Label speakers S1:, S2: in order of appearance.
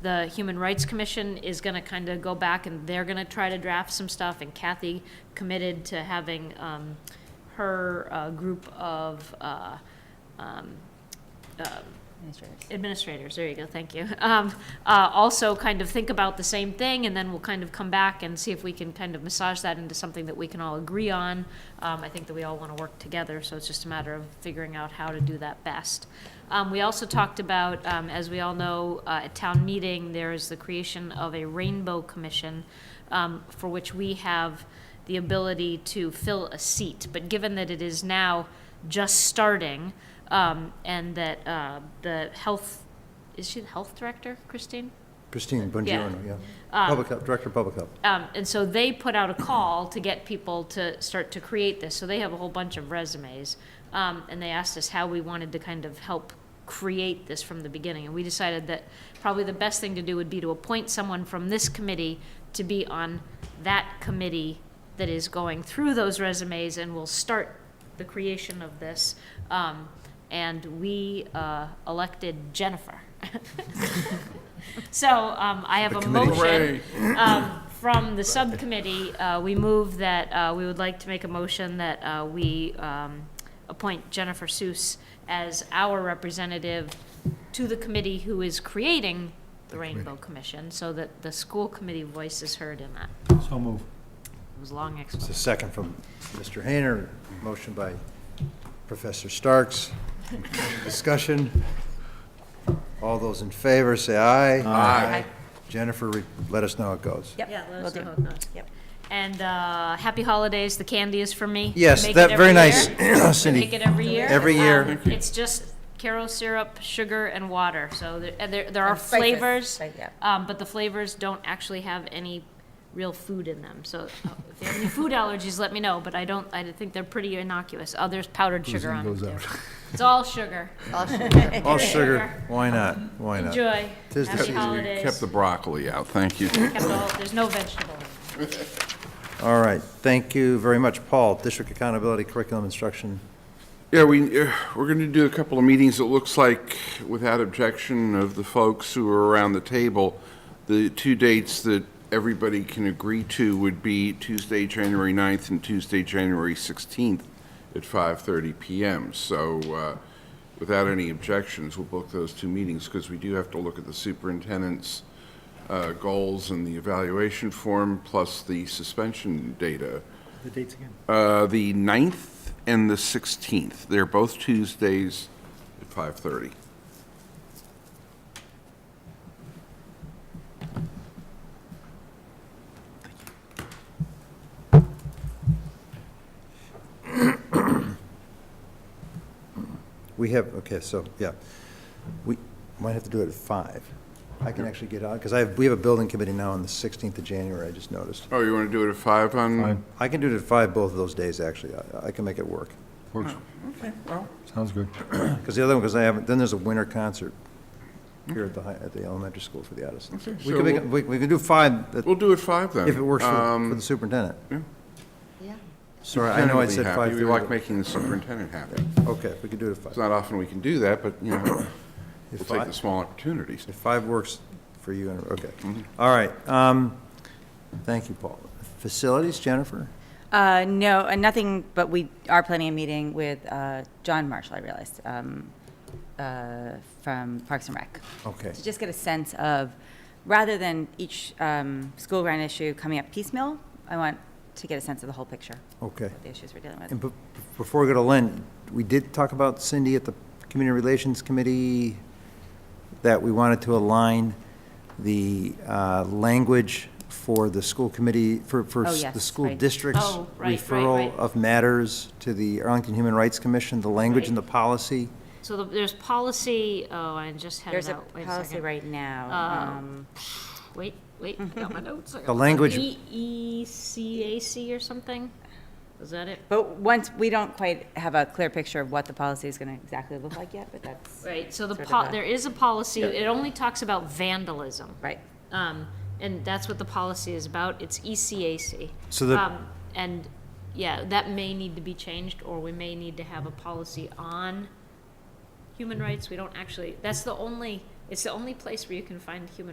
S1: the Human Rights Commission is gonna kinda go back and they're gonna try to draft some stuff, and Kathy committed to having, um, her, uh, group of, uh, um, um, administrators, there you go, thank you. Um, uh, also kind of think about the same thing, and then we'll kind of come back and see if we can kind of massage that into something that we can all agree on. Um, I think that we all want to work together, so it's just a matter of figuring out how to do that best. Um, we also talked about, um, as we all know, uh, at town meeting, there is the creation of a rainbow commission, um, for which we have the ability to fill a seat. But given that it is now just starting, um, and that uh, the health, is she the health director, Christine?
S2: Christine Bongiorno, yeah.
S1: Um,
S2: Public Health, Director of Public Health.
S1: Um, and so they put out a call to get people to start to create this. So they have a whole bunch of resumes. Um, and they asked us how we wanted to kind of help create this from the beginning. And we decided that probably the best thing to do would be to appoint someone from this committee to be on that committee that is going through those resumes and will start the creation of this. Um, and we uh, elected Jennifer. so um, I have
S2: The
S1: a
S2: committee.
S1: motion um, from the subcommittee, uh, we move that, uh, we would like to make a motion that uh, we um, appoint Jennifer Seuss as our representative to the committee who is creating the Rainbow Commission, so that the school committee voice is heard in that.
S3: So move.
S1: It was a long
S2: It's a
S1: explanation.
S2: second from Mr. Hayner, motion by Professor Starks. Discussion. All those in favor, say aye. Aye. Jennifer, re- let us know how it goes.
S4: Yep.
S1: Yeah, let
S4: will
S1: us know
S4: do.
S1: how it goes.
S4: Yep.
S1: And uh, happy holidays, the candy is for me.
S2: Yes,
S1: Make it
S2: that, very
S1: every
S2: nice,
S1: year.
S2: Cindy.
S1: Make it every year.
S2: Every year.
S1: Um, It's just Caro syrup, sugar, and water, so there, and there, there are
S4: And spices,
S1: flavors.
S4: right, yeah.
S1: Um, but the flavors don't actually have any real food in them, so uh, if you have any food allergies, let me know, but I don't, I think they're pretty innocuous. Oh, there's powdered sugar on them too. It's all sugar.
S2: All sugar, why not? Why not?
S1: Enjoy.
S2: Tis the
S1: Happy
S2: season.
S1: holidays.
S5: Kept the broccoli out, thank you.
S1: Kept all- There's no vegetable. in it.
S2: All right, thank you very much. Paul, District Accountability Curriculum Instruction.
S5: Yeah, we, uh, we're going to do a couple of meetings, it looks like, without objection of the folks who are around the table. The two dates that everybody can agree to would be Tuesday, January 9th and Tuesday, January 16th at 5:30 PM. So uh, without any objections, we'll book those two meetings because we do have to look at the superintendent's uh, goals and the evaluation form, plus the suspension data.
S3: The dates again.
S5: Uh, the 9th and the 16th. They're both Tuesdays at 5:30.
S2: We have, okay, so, yeah. We might have to do it at five. I can actually get out, because I have, we have a building committee now on the 16th of January, I just noticed.
S5: Oh, you want to do it at 5 on?
S2: I can do it at five both of those days, actually. I, I can make it work.
S3: Works. Sounds good.
S2: Because the other one, because I haven't, then there's a winter concert here at the, high- at the elementary school for the Addisons.
S5: Okay,
S2: We
S5: so
S2: can make,
S5: we'll-
S2: it- we, we can do five, but
S5: We'll do it 5 then.
S2: if it works for, for
S5: Um,
S2: the superintendent.
S5: yeah.
S2: Sorry, I know I
S5: superintendent will be
S2: said
S5: happy.
S2: five
S5: We like
S2: thirty.
S5: making the superintendent happy.
S2: Okay, we can do it at
S5: It's
S2: five.
S5: not often we can do that, but, you know,
S2: If
S5: we'll take
S2: I-
S5: the small opportunities.
S2: If five works for you, and- okay. All right, um, thank you, Paul. Facilities, Jennifer?
S4: Uh, no, uh, nothing, but we are planning a meeting with, uh, John Marshall, I realized, um, uh, from Parks and Rec.
S2: Okay.
S4: To just get a sense of, rather than each, um, school grant issue coming up piecemeal, I want to get a sense of the whole picture,
S2: Okay.
S4: of the issues we're dealing
S2: And
S4: with.
S2: be- before we go to Lynn, we did talk about Cindy at the Community Relations Committee, that we wanted to align the uh, language for the school committee, for, for
S4: Oh,
S2: s- the
S4: yes,
S2: school
S4: right.
S2: district's
S1: Oh, right, right,
S2: referral
S1: right.
S2: of matters to the Arlington Human Rights Commission, the language and the
S1: Right.
S2: policy.
S1: So the- there's policy, oh, I just had
S4: There's
S1: it
S4: a
S1: out. Wait second.
S4: policy right now,
S1: Uh,
S4: um,
S1: Wait, wait, I got my notes. I got
S2: The
S1: my-
S2: language-
S1: E- ECAC or something? Is that it?
S4: but once, we don't quite have a clear picture of what the policy is gonna exactly look like yet, but that's,
S1: Right, so the,
S4: Sort of
S1: po-
S4: a-
S1: there is a policy, it only talks about vandalism.
S4: right.
S1: Um, and that's what the policy is about, it's E ECAC.
S2: So the-
S1: Um, And, yeah, that may need to be changed, or we may need to have a policy on human rights. We don't actually, that's the only, it's the only place where you can find human